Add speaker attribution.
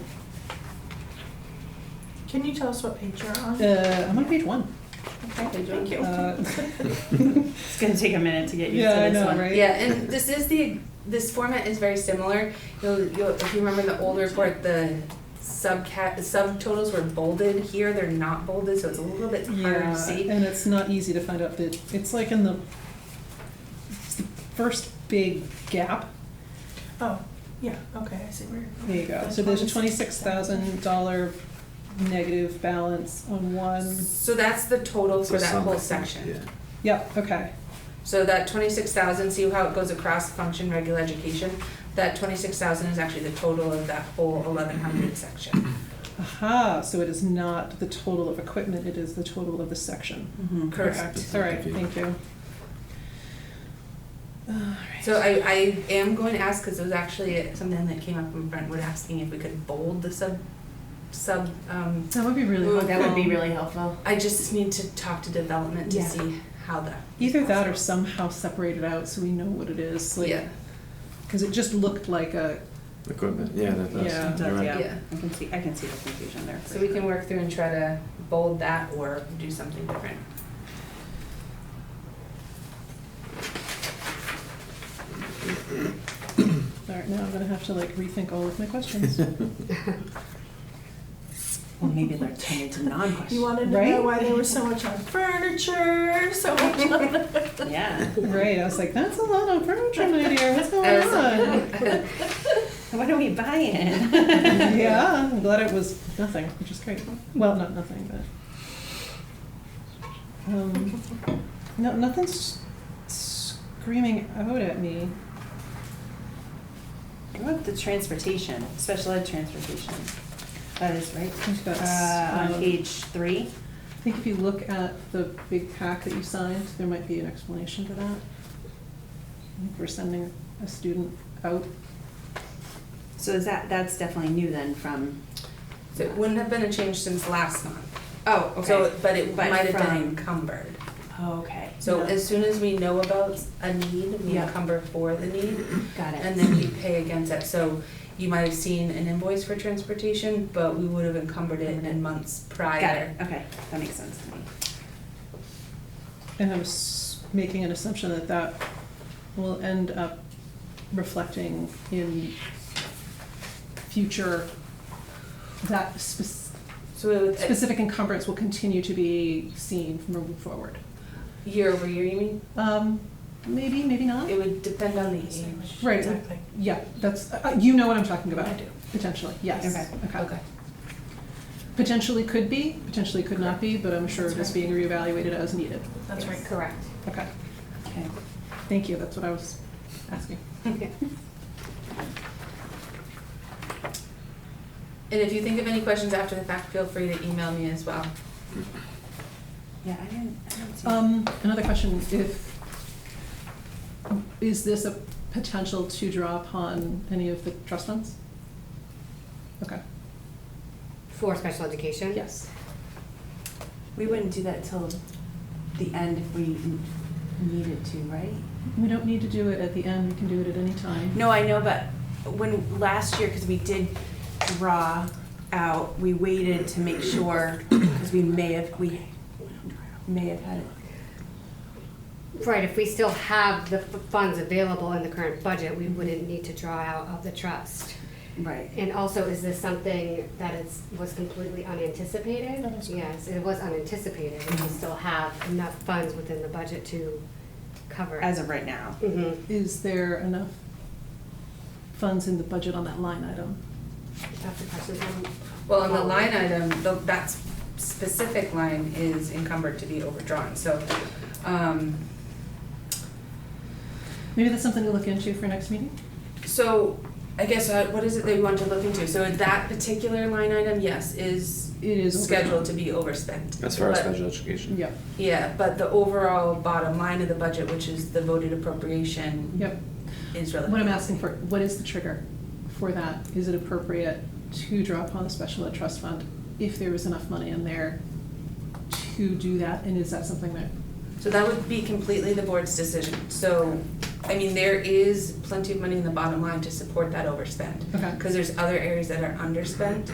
Speaker 1: Can you tell us what page you're on?
Speaker 2: Uh, I'm on page one.
Speaker 1: Okay, thank you.
Speaker 2: Uh,
Speaker 3: It's gonna take a minute to get used
Speaker 2: yeah, I
Speaker 3: to this
Speaker 2: know,
Speaker 3: one.
Speaker 2: right?
Speaker 4: Yeah, and this is the, this format is very similar. You'll, you'll, if you remember the old report, the subcat, the subtotals were bolded. Here, they're not bolded, so it's a little bit harder
Speaker 2: Yeah,
Speaker 4: to see.
Speaker 2: and it's not easy to find out that it's like in the, it's the first big gap.
Speaker 1: Oh, yeah, okay, I see where you're going.
Speaker 2: There you go. So there's a twenty-six thousand dollar negative balance on one.
Speaker 4: So that's the total for
Speaker 5: So
Speaker 4: that
Speaker 5: some, I
Speaker 4: whole
Speaker 5: think,
Speaker 4: section.
Speaker 5: yeah.
Speaker 2: Yep. Okay.
Speaker 4: So that twenty-six thousand, see how it goes across function, regular education? That twenty-six thousand is actually the total of that whole eleven hundred section.
Speaker 2: Aha. So it is not the total of equipment. It is the total of the section.
Speaker 3: Mhm.
Speaker 4: Correct.
Speaker 2: All right. Thank you. All right.
Speaker 4: So I, I am going to ask, because it was actually something that came up from Brentwood asking if we could bold the sub, sub, um,
Speaker 2: That would be really
Speaker 4: Ooh,
Speaker 2: helpful.
Speaker 3: That would be really helpful.
Speaker 4: I just need to talk to development to
Speaker 3: Yeah.
Speaker 4: see how the.
Speaker 2: Either that or somehow separate it out so we know what it is. Like,
Speaker 4: Yeah,
Speaker 2: Because it just looked like a,
Speaker 5: Equipment, yeah, that does.
Speaker 2: Yeah,
Speaker 3: it does,
Speaker 5: You're right.
Speaker 3: Yeah.
Speaker 4: yeah,
Speaker 3: I can see, I can see the confusion there.
Speaker 4: so we can work through and try to bold that or do something different.
Speaker 2: all right, now I'm gonna have to like rethink all of my questions.
Speaker 3: Well, maybe they're turning into
Speaker 1: You
Speaker 3: non-questions.
Speaker 1: wanted to know
Speaker 2: Right?
Speaker 1: why there was so much on furniture, so much on.
Speaker 3: Yeah.
Speaker 2: Right, I was like, that's a lot of furniture, my dear, what's
Speaker 4: I
Speaker 2: going
Speaker 4: was
Speaker 2: on?
Speaker 3: What are we buying?
Speaker 2: Yeah, I'm glad it was nothing, which is great. Well, not nothing, but. Um, no, nothing's screaming out at me.
Speaker 3: What about the transportation, special ed transportation? That is right.
Speaker 2: I think that's,
Speaker 3: Uh,
Speaker 2: um,
Speaker 3: on page three.
Speaker 2: I think if you look at the big pack that you signed, there might be an explanation to that. I think We're sending a student out
Speaker 3: So is that, that's definitely new then from,
Speaker 4: So it wouldn't have been a change since last month.
Speaker 3: oh,
Speaker 4: So,
Speaker 3: okay.
Speaker 4: but it
Speaker 3: But
Speaker 4: might have been
Speaker 3: from-
Speaker 4: encumbered.
Speaker 3: Oh, okay.
Speaker 4: So
Speaker 2: Yeah.
Speaker 4: as soon as we know about a need, we
Speaker 3: Yeah.
Speaker 4: encumber for the need,
Speaker 3: Got it.
Speaker 4: and then we pay against it. So you might have seen an invoice for transportation, but we would have encumbered it in months prior.
Speaker 3: Mm-hmm. Got it, okay. That makes sense to me.
Speaker 2: And I'm s- making an assumption that that will end up reflecting in future, that spec-
Speaker 4: So it would,
Speaker 2: specific encumbrance will continue to be seen moving forward.
Speaker 4: year over year, you mean?
Speaker 2: Um, maybe, maybe not.
Speaker 4: It would depend on the age.
Speaker 2: Right.
Speaker 1: Exactly.
Speaker 2: Yeah, that's, uh, you know what I'm talking about.
Speaker 1: I do.
Speaker 2: Potentially, yes.
Speaker 3: Okay.
Speaker 4: Okay.
Speaker 2: Potentially could be, potentially could not be, but I'm sure it
Speaker 1: That's
Speaker 2: is being reevaluated as needed.
Speaker 1: That's right.
Speaker 4: Correct.
Speaker 2: Okay,
Speaker 3: Okay.
Speaker 2: thank you, that's what I was asking.
Speaker 4: And if you think of any questions after the fact, feel free to email me as well.
Speaker 3: Yeah, I didn't, I didn't see.
Speaker 2: Um, another question, if, is this a potential to draw upon any of the trust funds? Okay,
Speaker 6: For special education?
Speaker 2: yes.
Speaker 3: We wouldn't do that till the end if we n- needed to, right?
Speaker 2: We don't need to do it at the end, we can do it at any time.
Speaker 3: No, I know, but when, last year, because we did draw out, we waited to make sure, because we may have, we may have had it.
Speaker 6: Right, if we still have the f- funds available in the current budget, we wouldn't need to draw out of the trust.
Speaker 3: Right.
Speaker 6: And also, is this something that is, was completely unanticipated?
Speaker 1: That is correct.
Speaker 6: Yes, it was unanticipated, and we still have enough funds within the budget to cover.
Speaker 3: As of right now.
Speaker 6: hmm
Speaker 2: Is there enough funds in the budget on that line item?
Speaker 6: that's the question.
Speaker 4: Well, on the line item, the- that specific line is encumbered to be overdrawn, so, um,
Speaker 2: Maybe that's something to look into for next meeting?
Speaker 4: so I guess, uh, what is it that you want to look into? So that particular line item, yes, is
Speaker 2: It is.
Speaker 4: scheduled to be overspent.
Speaker 5: As far as
Speaker 4: But-
Speaker 5: special education.
Speaker 2: Yep,
Speaker 4: Yeah, but the overall bottom line of the budget, which is the voted appropriation,
Speaker 2: yep.
Speaker 4: is
Speaker 2: What
Speaker 4: relevant.
Speaker 2: I'm asking for, what is the trigger for that? Is it appropriate to draw upon the special ed trust fund if there is enough money in there to do that? And is that something that,
Speaker 4: So that would be completely the board's decision. So, I mean, there is plenty of money in the bottom line to support that overspend.
Speaker 2: okay.
Speaker 4: Because there's other areas that are underspent,